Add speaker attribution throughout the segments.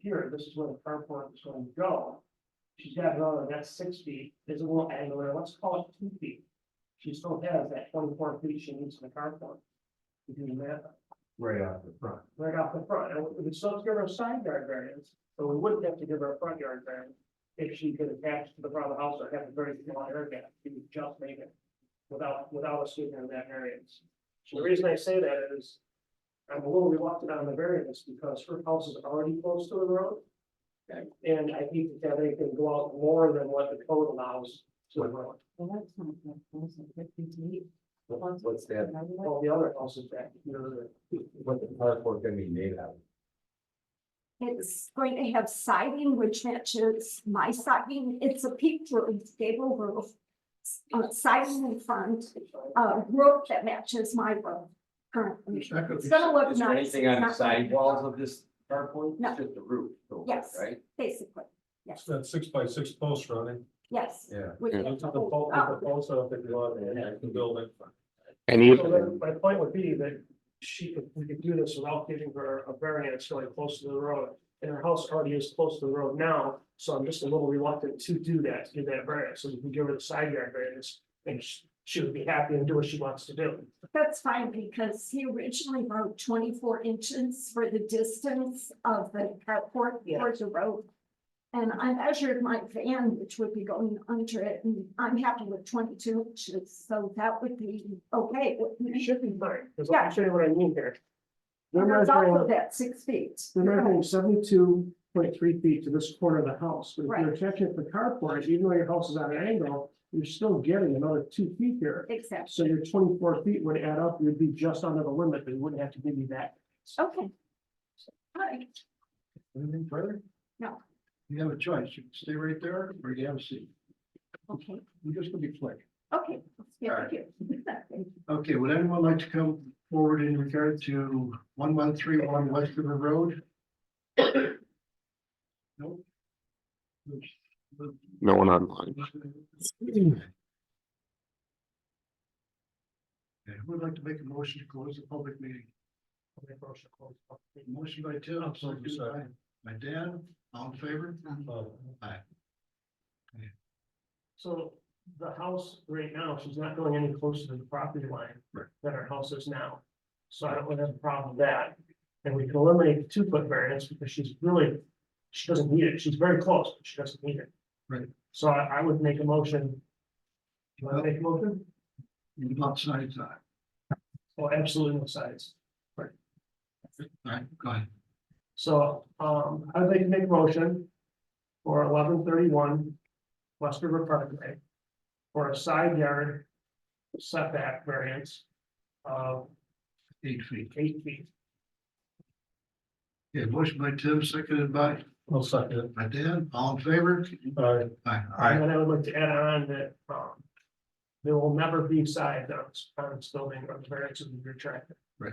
Speaker 1: here, this is where the carport is going to go. She's got another, that's six feet, there's a little angle there, let's call it two feet. She still has that twenty-four feet she needs in the carport. You do the math,
Speaker 2: right off the front.
Speaker 1: right off the front, and we still have to give her a side yard variance, but we wouldn't have to give her a front yard variance. If she could attach to the front of the house or have a very small air gap, she would just make it without, without us giving her that variance. So the reason I say that is I'm a little reluctant on the variance because her house is already close to the road.
Speaker 3: Okay.
Speaker 1: And I hate to have anything go out more than what the code allows to the road,
Speaker 3: Well, that's not that close, it's fifty-eight.
Speaker 2: What- What's that,
Speaker 1: all the other houses back, you know, the-
Speaker 2: what the carport gonna be made out of?
Speaker 4: It's going to have siding which matches my siding. It's a peaked roof, gable roof. Uh, siding in front, uh, roof that matches my roof currently. It's gonna look
Speaker 5: Is there
Speaker 4: nice.
Speaker 5: anything on the
Speaker 4: It's not gonna be
Speaker 5: sidewalls of this carport?
Speaker 4: No.
Speaker 5: It's just the roof. so,
Speaker 4: Yes.
Speaker 5: Right?
Speaker 4: Basically,
Speaker 6: It's that six by six post running.
Speaker 4: yes.
Speaker 2: Yeah.
Speaker 4: We can-
Speaker 6: Look at the pole, look at the post up and go out and the building.
Speaker 7: And
Speaker 1: So
Speaker 7: even,
Speaker 1: then my point would be that she could, we could do this without giving her a variance really close to the road. And her house already is close to the road now, so I'm just a little reluctant to do that, to give that variance, so we can give her the side yard variance. And she, she would be happy and do what she wants to do.
Speaker 4: That's fine because he originally wrote twenty-four inches for the distance of the carport
Speaker 1: Yeah.
Speaker 4: towards the road. And I measured my van, which would be going under it, and I'm happy with twenty-two inches, so that would be okay. with
Speaker 1: It
Speaker 4: me.
Speaker 1: should be fine, because
Speaker 4: Yeah.
Speaker 1: I'll show you what I mean here. They're
Speaker 4: And It's also
Speaker 1: measuring,
Speaker 4: that six feet.
Speaker 1: they're measuring seventy-two point three feet to this corner of the house, but if you're
Speaker 4: Right.
Speaker 1: attaching it to the carport, even though your house is on an angle, you're still getting another two feet here.
Speaker 4: Exactly,
Speaker 1: So your twenty-four feet would add up, you'd be just under the limit, but you wouldn't have to give you that
Speaker 4: okay. All right,
Speaker 2: Anything further?
Speaker 4: No.
Speaker 2: You have a choice, you can stay right there, or you have a seat,
Speaker 4: okay,
Speaker 2: we're just gonna be quick.
Speaker 4: okay.
Speaker 2: All
Speaker 4: Yeah,
Speaker 2: right.
Speaker 4: thank you.
Speaker 2: Okay, would anyone like to come forward in regard to one one three one West River Road? No.
Speaker 7: no one online.
Speaker 2: Okay, who would like to make a motion to close the public meeting? Motion by Tim,
Speaker 6: I'll second
Speaker 2: seconded by,
Speaker 6: that.
Speaker 2: by Dan, all in favor?
Speaker 6: Uh,
Speaker 1: So the house right now, she's not going any closer to the property line
Speaker 2: Right.
Speaker 1: than our house is now. So I don't really have a problem with that. And we can eliminate the two foot variance because she's really, she doesn't need it. She's very close, but she doesn't need it.
Speaker 2: Right.
Speaker 1: So I, I would make a motion. Do you want to make a motion?
Speaker 2: You'd love side side.
Speaker 1: Oh, absolutely no sides.
Speaker 2: All right, go ahead.
Speaker 1: So, um, I'd like to make a motion for eleven thirty-one West River Parkway for a side yard setback variance of
Speaker 2: Eight feet.
Speaker 1: eight feet.
Speaker 2: Okay, motion by Tim, seconded by,
Speaker 6: I'll second
Speaker 2: by Dan, all in favor?
Speaker 6: it. All right.
Speaker 2: Aye.
Speaker 1: And then I would like to add on that, um, there will never be side on, on this building or the variance will be retracted.
Speaker 2: Right.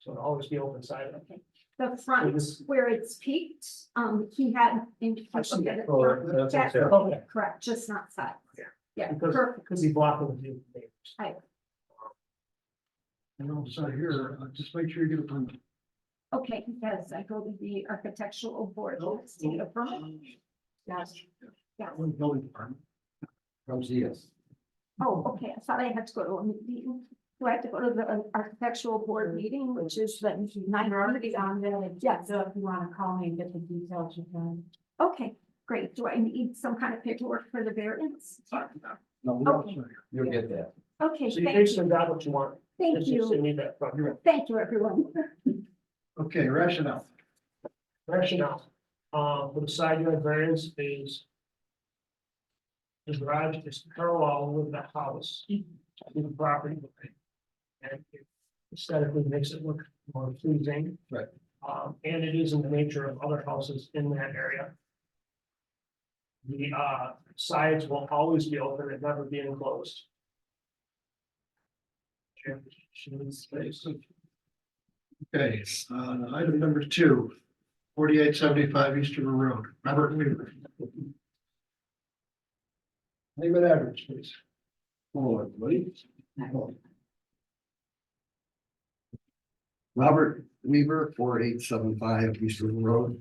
Speaker 1: So it'll always be open side.
Speaker 4: The
Speaker 1: So
Speaker 4: front
Speaker 1: this-
Speaker 4: where it's peaked, um, he had indication that it's
Speaker 6: Well,
Speaker 4: not
Speaker 6: that's
Speaker 4: That's
Speaker 6: okay.
Speaker 1: Okay,
Speaker 4: correct, just not sides.
Speaker 1: Yeah.
Speaker 4: Yeah,
Speaker 1: Because-
Speaker 4: perfect,
Speaker 1: Because he blocked the view. from neighbors.
Speaker 2: And also here, uh, just make sure you get a permit.
Speaker 4: okay, yes, I go to the architectural board,
Speaker 1: Oh,
Speaker 2: Nope.
Speaker 4: to Oh, get a permit, yes, yes,
Speaker 2: One building department.
Speaker 5: From ZS.
Speaker 4: oh, okay, I thought I had to go to a meeting. Do I have to go to the uh, architectural board meeting, which is the nine already on there, yes,
Speaker 3: So if you wanna call me and get the details, you can.
Speaker 4: okay, great, do I need some kind of paperwork for the variance?
Speaker 2: No,
Speaker 4: Oh.
Speaker 2: we don't, sir.
Speaker 5: You'll get that.
Speaker 4: Okay,
Speaker 1: So you
Speaker 4: thank
Speaker 1: basically
Speaker 4: you,
Speaker 1: got what you want.
Speaker 4: thank
Speaker 1: It's just
Speaker 4: you,
Speaker 1: need that front yard.
Speaker 4: thank you, everyone.
Speaker 2: Okay, rationale.
Speaker 1: rationale, um, for the side yard variance is. The garage is parallel with the house, with the property line. And it aesthetically makes it look more pleasing.
Speaker 2: Right.
Speaker 1: Um, and it is in the nature of other houses in that area. The, uh, sides will always be open and never be enclosed. Chair, she needs space.
Speaker 2: Okay, uh, item number two, forty-eight seventy-five East River Road, Robert Weaver. Name and address, please. Hello, everybody. Robert Weaver, four eight seven five East River Road.